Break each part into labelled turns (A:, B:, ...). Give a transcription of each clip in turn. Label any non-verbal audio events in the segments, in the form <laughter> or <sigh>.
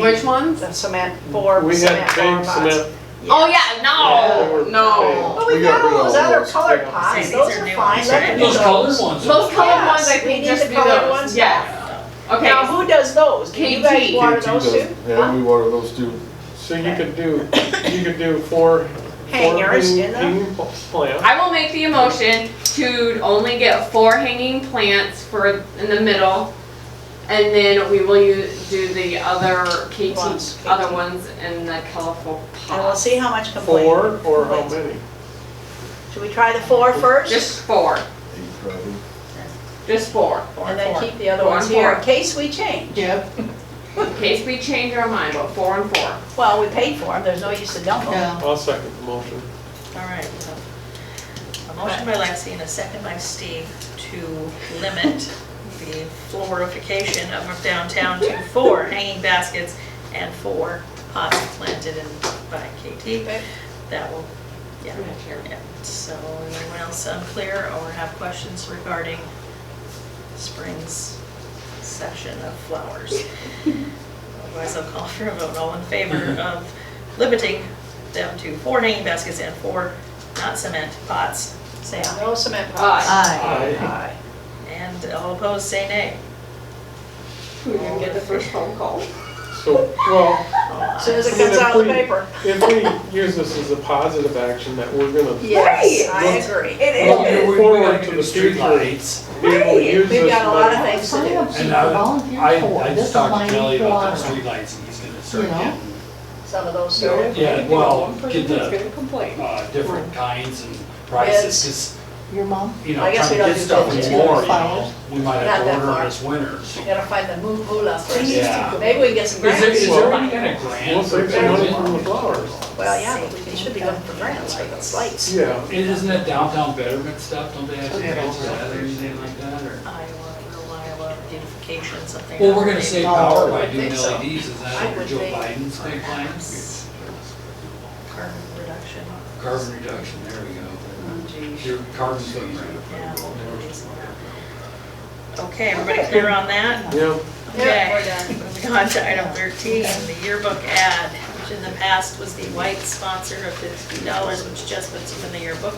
A: Which ones?
B: The cement, four
C: We
B: cement
C: had
B: bar
C: pink
B: pots.
C: cement.
A: Oh, yeah,
C: They were
A: no, no.
C: pink.
B: But Oh, we
D: We
B: got
D: got rid
B: all
D: of
B: those
D: all
B: other
D: those.
B: colored
C: Hang on.
B: pots,
E: Say
B: those
E: these are
B: are
E: new
B: fine,
E: ones,
B: let
E: right?
B: them
F: Those
B: go.
F: colored ones.
A: Those colored ones, I
B: Yes, we
A: think
B: need
A: just
B: the
A: be
B: colored
A: those,
B: ones
A: yeah.
B: Now,
A: Okay,
B: who does those? Do you guys
A: KT.
B: water
D: KT
B: those
D: does-
B: too?
D: Yeah, we water those too.
C: So you could do, you could do four.
B: Hangers
C: four
B: in them?
C: ping- ping Plants.
A: I will make the motion to only get four hanging plants for, in the middle. And then we will use, do the other KT,
B: Ones, KT.
A: other ones in the colorful
B: And we'll
A: pots.
B: see how much complaint.
C: Four or how many?
B: Should we try the four first?
A: Just four,
D: Eight probably.
A: just four,
B: And then keep the other
A: Four
B: ones
A: and
B: here in
A: four.
B: case we change.
F: Yep.
A: in case we change our mind, but four and four.
B: Well, we paid for them, there's no use to dump them.
C: I'll second the motion.
E: All right, so, a motion by Lexi and a second by Steve to limit the florification of our downtown to four hanging baskets and four pots planted in by KT.
B: Okay.
E: That will, yeah, yeah. So anyone else unclear or have questions regarding spring's session of flowers? Otherwise, I'll call for a vote, all in favor of limiting them to four hanging baskets and four not cement pots, say aye.
B: No cement
A: Aye.
B: pots.
C: Aye.
B: Aye.
E: And all opposed, say nay.
A: Who didn't get the first phone call?
C: So, well,
B: As Soon as it comes out of the paper.
C: if we use this as a positive action that we're gonna be
B: Yes, I agree.
C: Well,
F: We-
C: you-
B: It
F: we- we
C: Forward
F: gotta
C: to
F: do
C: the future.
F: streetlights.
C: able to
B: is.
C: use
B: We've
C: this
B: got a lot of
C: money.
B: things to do,
F: And I,
B: Oh,
G: Volunteer
F: I
G: for, this
F: just
G: is
F: talked to
G: my
F: Kelly
G: need for
F: about the
G: water.
F: streetlights, and he's gonna start
G: You know?
F: getting,
B: some of those. too.
F: yeah, well, get
A: Person's
F: the,
A: gonna complain.
F: uh, different kinds and prices,
B: Bids.
F: 'cause,
G: Your mom?
F: you know,
B: I guess we
F: trying to
B: don't
F: get
B: do
F: stuff
B: bids
F: in
B: yet.
F: more, you know,
G: Flowers.
F: we might
B: Not
F: have
B: that
F: to order
B: far.
F: this winter. so-
B: We Gotta find the mu- moolah first.
F: Yeah.
B: Maybe we can get some
F: Is there, is
B: grants.
F: there any kind of grant?
C: We'll save some money from the flowers.
B: Well, yeah, but we can- should be looking for grants for those lights.
C: Yeah.
F: And Isn't that downtown betterment stuff, don't they have some grants for that or anything like that, or?
E: Iowa, rural Iowa beautification, something.
F: Well, we're gonna save
G: No,
F: power
B: I
F: by
B: think
F: doing LEDs,
B: so.
F: is
B: I
F: that what
B: would
F: Joe
B: think.
F: Biden's big plan?
E: Perhaps. Carbon reduction.
F: Carbon reduction, there we
G: Oh,
F: go.
E: Gee,
F: Your carbon footprint.
E: yeah. Okay, everybody clear on that?
C: Yeah.
B: Yeah,
E: Okay. Moving on to item 13, the yearbook ad, which in the past was the white sponsor of $50, which just puts them in the yearbook.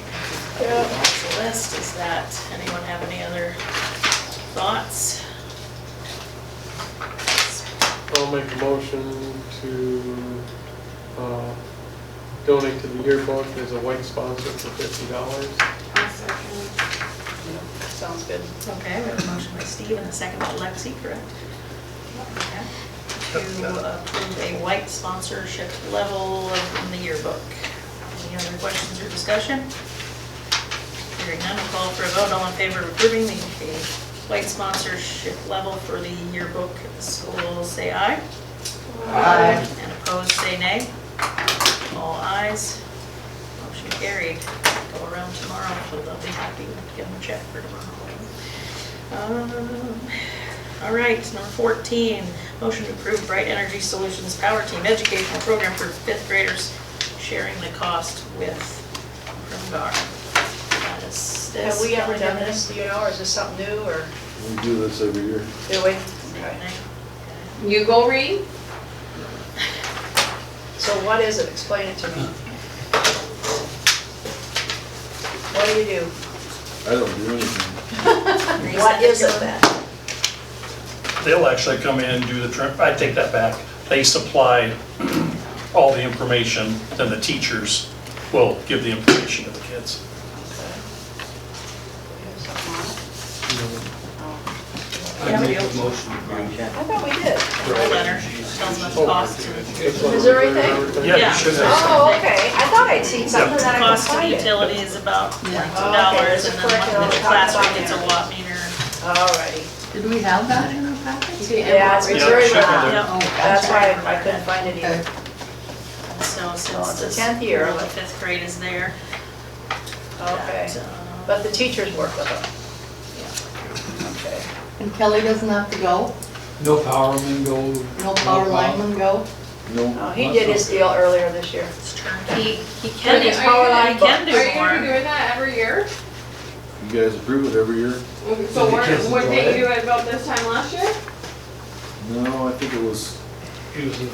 B: Yeah.
E: That's the list, is that, anyone have any other thoughts?
C: I'll make a motion to uh, donate to the yearbook as a white sponsor for fifty dollars.
B: Sounds good.
E: Okay, we have a motion by Steve and a second by Lexi, correct? Okay. To approve a white sponsorship level in the yearbook. Any other questions or discussion? Hearing none, we'll call for a vote, all in favor of approving the the white sponsorship level for the yearbook schools, say aye.
G: Aye.
E: And opposed, say nay. All ayes. Motion carried. Go around tomorrow, so they'll be happy to give them a check for tomorrow. Um, All right, number 14, motion to approve Bright Energy Solutions Power Team Educational Program for fifth graders, sharing the cost with Primgar. That is-
B: Have
E: that's-
B: we ever done this, do you know, or is this something new, or
D: We do this every year.
B: do we? <laughs>
A: You go read?
B: So what is it? Explain it to me. What do you do?
D: I don't do anything.
B: What is it then?
H: They'll actually come in and do the, trim- I take that back. They supply all the information, then the teachers will give the information to the kids.
B: We have something on
F: I make a motion to
B: it?
F: approve.
B: I thought we did.
E: Roll letter, tells them the cost to
C: It's like-
B: Is there anything?
H: Yeah,
E: Yeah.
H: you should have.
B: Oh, okay. I thought I'd seen something that I could
E: cost of
B: find it.
E: utilities about
G: Yeah.
E: two dollars, and then
B: Oh, Okay,
E: one- the
B: so
E: classroom
B: it's
E: gets a watt meter.
B: Alrighty.
G: Did we have that in our package?
B: Yeah, it's
H: Yeah,
B: very
H: check it
B: loud.
H: out.
E: No,
B: That's why I couldn't find it either.
E: So
B: Well,
E: since
B: Oh, it's the
E: this,
B: 10th year.
E: the fifth grade is there.
B: Okay.
E: that, uh,
B: But the teachers work with them. Okay.
G: And Kelly doesn't have to go,
F: No powerman go.
G: no power lineman go?
D: No,
B: Oh, he did his deal earlier this year.
E: It's turnkey, he
A: Are
E: can,
A: you-
E: he's
A: are you
E: probably,
A: gonna-
E: he can
A: Are
E: do
A: you gonna be
E: more.
A: doing that every year?
D: you guys approve it every year?
A: So
F: the
A: what,
F: kids
A: what
F: enjoy
A: did
F: it.
A: you do about this time last year?
D: No, I think it was
F: using